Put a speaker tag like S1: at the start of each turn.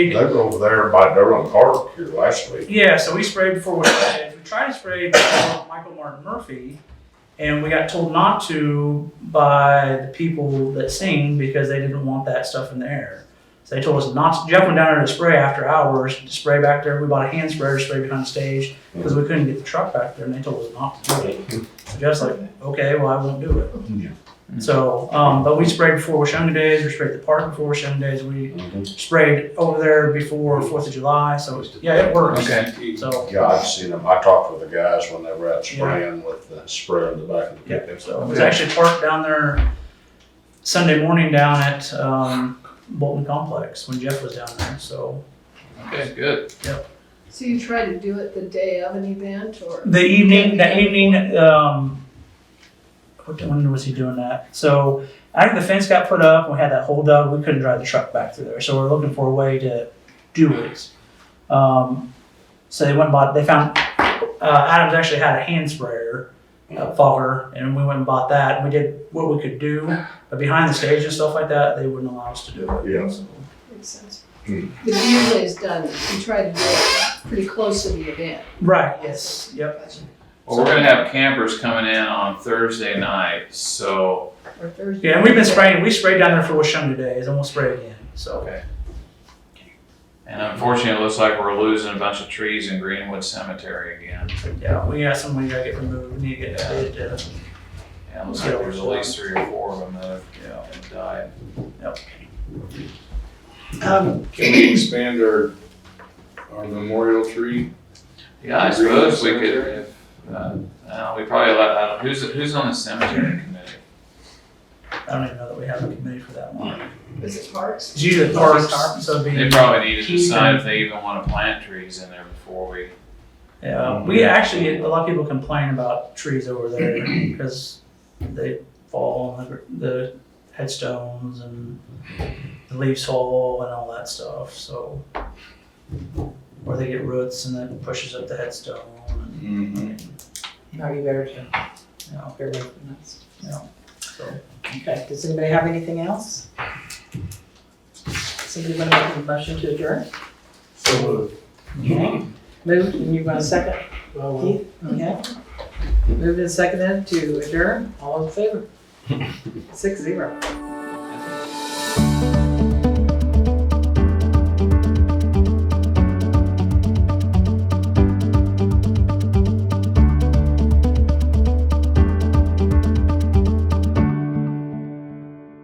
S1: They were over there by Durham Park here last week.
S2: Yeah, so we sprayed before we tried. We tried to spray before Michael Martin Murphy, and we got told not to by the people that sing because they didn't want that stuff in the air. So they told us not. to Jeff went down there to spray after hours to spray back there. We bought a hand sprayer to spray behind the stage because we couldn't get the truck back there, and they told us not to do it. So Jeff's like, okay, well I won't do it.
S1: Yeah.
S2: So, um, but we sprayed before Washunga Days. We sprayed the park before Washunga Days. We sprayed over there before Fourth of July. So yeah, it works.
S3: Okay.
S2: So.
S1: Yeah, I've seen them. I talked with the guys when they were out spraying with the sprayer in the back of the
S2: Yeah,
S1: pickup.
S2: so it was actually parked down there Sunday morning down at um, Bolton Complex when Jeff was down there. So
S3: Okay, good.
S4: So you try to do it the day of an event or?
S2: the evening, that evening, um, what when was he doing that? So after the fence got put up, we had that holdup. We couldn't drive the truck back through there, so we're looking for a way to do it. Um, so they went and bought. They found uh, Adams actually had a hand sprayer. uh, fogger, and we went and bought that. And we did what we could do, but behind the stage and stuff like that, they wouldn't allow us to do it.
S1: Yeah.
S2: So,
S4: Makes sense.
S1: Hmm.
S4: But usually it's done, you try to do it pretty close to the event.
S2: Right. Yes. Yep.
S4: Gotcha.
S3: Well, we're gonna have campers coming in on Thursday night, so.
S4: Or Thursday.
S2: Yeah, and we've been spraying. We sprayed down there for Washunga days, and we'll spray again. So
S3: Okay. And unfortunately, it looks like we're losing a bunch of trees in Greenwood Cemetery again.
S2: yeah, we got some we gotta get removed. We need to get that bid, uh,
S3: And it looks like there's at least three or four of them that have, you know, have died.
S5: Um,
S6: Can we expand our, our memorial tree?
S3: Yeah, I suppose we could, uh, uh, we probably let, I don't, who's, who's on the cemetery committee?
S2: I don't even know that we have a committee for that one.
S4: Is it parks?
S2: It's usually the parks, so it'd be-
S3: They probably need to
S2: Keith
S3: decide
S2: and-
S3: if they even wanna plant trees in there before we.
S2: Yeah, we actually get a lot of people complain about trees over there because they fall on the, gr- the headstones and the leaves fall and all that stuff. So, or they get roots and then pushes up the headstone. And,
S1: Mm-hmm.
S5: no, you better to
S2: you know,
S5: get away from this.
S2: so
S5: Okay, does anybody have anything else? Somebody want to make a motion to adjourn? Okay. Moved, and you want a second? Keith? Okay. Moved and seconded to adjourn, all in favor? Six zero.